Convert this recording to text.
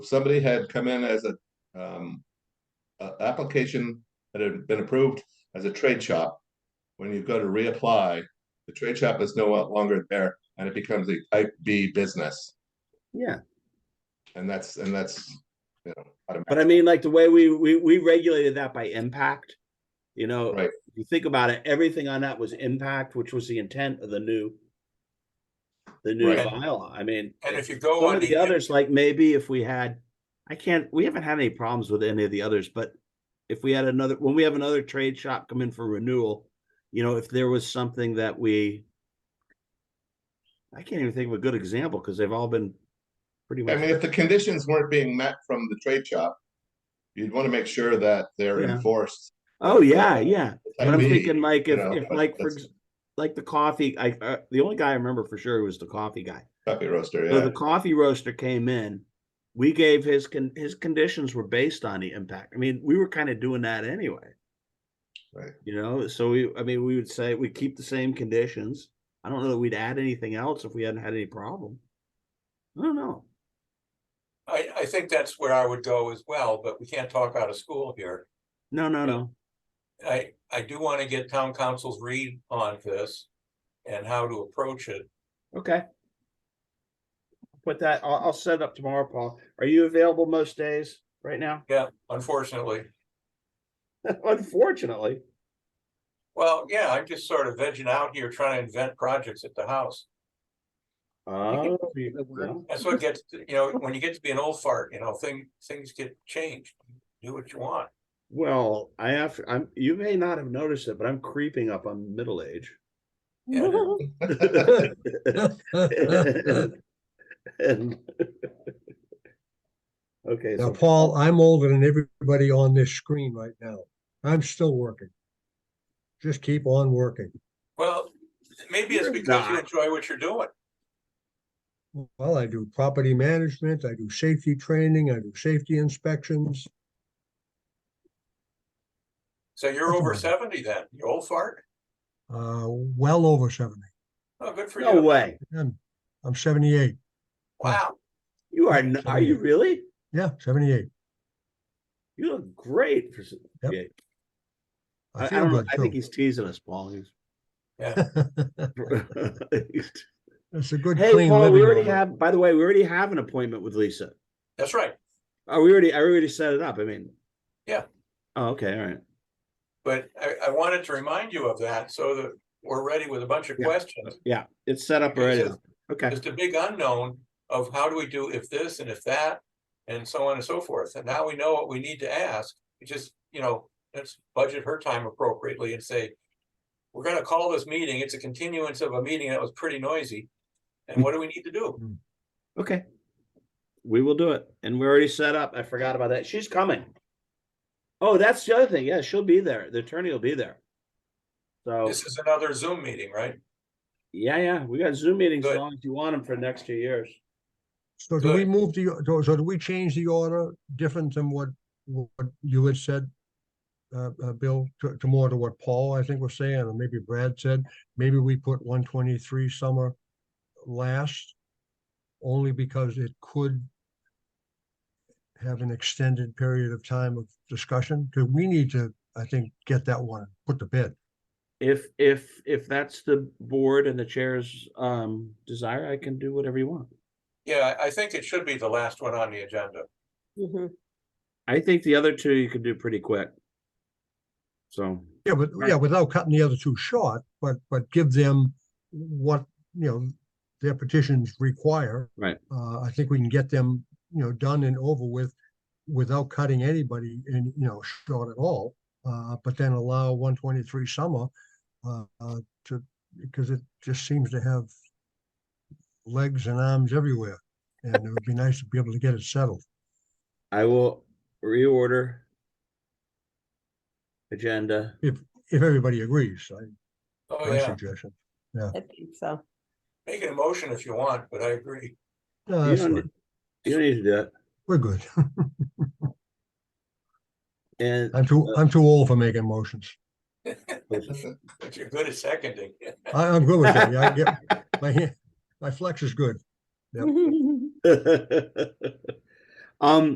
somebody had come in as a, um, a application that had been approved as a trade shop. When you go to reapply, the trade shop is no longer there and it becomes a type B business. Yeah, And that's, and that's, you know, but automatic. I mean, like the way we, we, we regulated that by impact. You know, Right. if you think about it, everything on that was impact, which was the intent of the new. The new Right. bylaw. I mean, And if you go some on of the the, others, like maybe if we had, I can't, we haven't had any problems with any of the others, but. If we had another, when we have another trade shop come in for renewal, you know, if there was something that we. I can't even think of a good example, because they've all been pretty I much. mean, if the conditions weren't being met from the trade shop, you'd want to make sure that they're Yeah. enforced. Oh, yeah, yeah. type But I'm B, thinking like you if, know, if but like for, that's- ex- like the coffee, I, uh, the only guy I remember for sure was the coffee guy. Coffee roaster, So yeah. the coffee roaster came in. We gave his con- his conditions were based on the impact. I mean, we were kind of doing that anyway. Right. You know, so we, I mean, we would say we keep the same conditions. I don't know that we'd add anything else if we hadn't had any problem. I don't know. I, I think that's where I would go as well, but we can't talk out of school here. No, no, no. I, I do want to get town council's read on this and how to approach it. Okay. Put that, I'll, I'll set it up tomorrow, Paul. Are you available most days right now? Yeah, unfortunately. Unfortunately. Well, yeah, I'm just sort of vegging out here trying to invent projects at the house. Oh, the work. well, That's what gets, you know, when you get to be an old fart, you know, thing, things get changed. Do what you want. well, I have, I'm, you may not have noticed it, but I'm creeping up on middle age. Yeah. And Okay, Now, so Paul, I'm older than everybody on this screen right now. I'm still working. Just keep on working. Well, maybe it's You're because you not. enjoy what you're doing. Well, I do property management, I do safety training, I do safety inspections. So you're over Mhm. seventy then, you old fart. Uh, well over seventy. Oh, good for no you. way. I'm, I'm seventy-eight. Wow. You are, n- are you really? Yeah, seventy-eight. You look great. for s- Yep. yeah. I, I I feel don't know. good I think he's teasing us, Paul. He's- too. It's a good Hey, clean Paul, we already living. over. have, by the way, we already have an appointment with Lisa. That's right. Oh, we already, I already set it up. I mean. Yeah. Oh, okay, all right. But I, I wanted to remind you of that so that we're ready with a bunch of Yeah. questions. Yeah, it's set up already. It's Okay, It's a big unknown of how do we do if this and if that and so on and so forth. And now we know what we need to ask. We just, you know, let's budget her time appropriately and say, we're gonna call this meeting. It's a continuance of a meeting that was pretty noisy. And what do we need to do? okay. We will do it. And we're already set up. I forgot about that. She's coming. Oh, that's the other thing. Yeah, she'll be there. The attorney will be there. So, This is another Zoom meeting, right? yeah, yeah, we got Zoom meetings as Good. long as you want them for the next two years. So do we Good. move the, do- so do we change the order different than what, what you had said? Uh, uh, Bill, to, to more to what Paul, I think was saying, or maybe Brad said, maybe we put one twenty-three summer last. Only because it could have an extended period of time of discussion, because we need to, I think, get that one, put to bed. If, if, if that's the board and the chair's um desire, I can do whatever you want. Yeah, I I think it should be the last one on the agenda. I think the other two you could do pretty quick. So, Yeah, but Right. yeah, without cutting the other two short, but but give them what, you know, their petitions require. Right. Uh, I think we can get them, you know, done and over with without cutting anybody in, you know, short at all. Uh, but then allow one twenty-three summer, uh, uh, to, because it just seems to have legs and arms everywhere. And it would be nice to be able to get it settled. I will reorder agenda. If everybody agrees, I, Oh, my yeah, suggestion. I think so. make an emotion if you want, but I agree. No, You Uh, that's don't, fine. need- you don't need to do it. We're good. And I'm too, I'm too old for making motions. But you're good at seconding. I, I'm good with that. Yeah, I get, my, hand- my flex is good. Yep. uh, Um,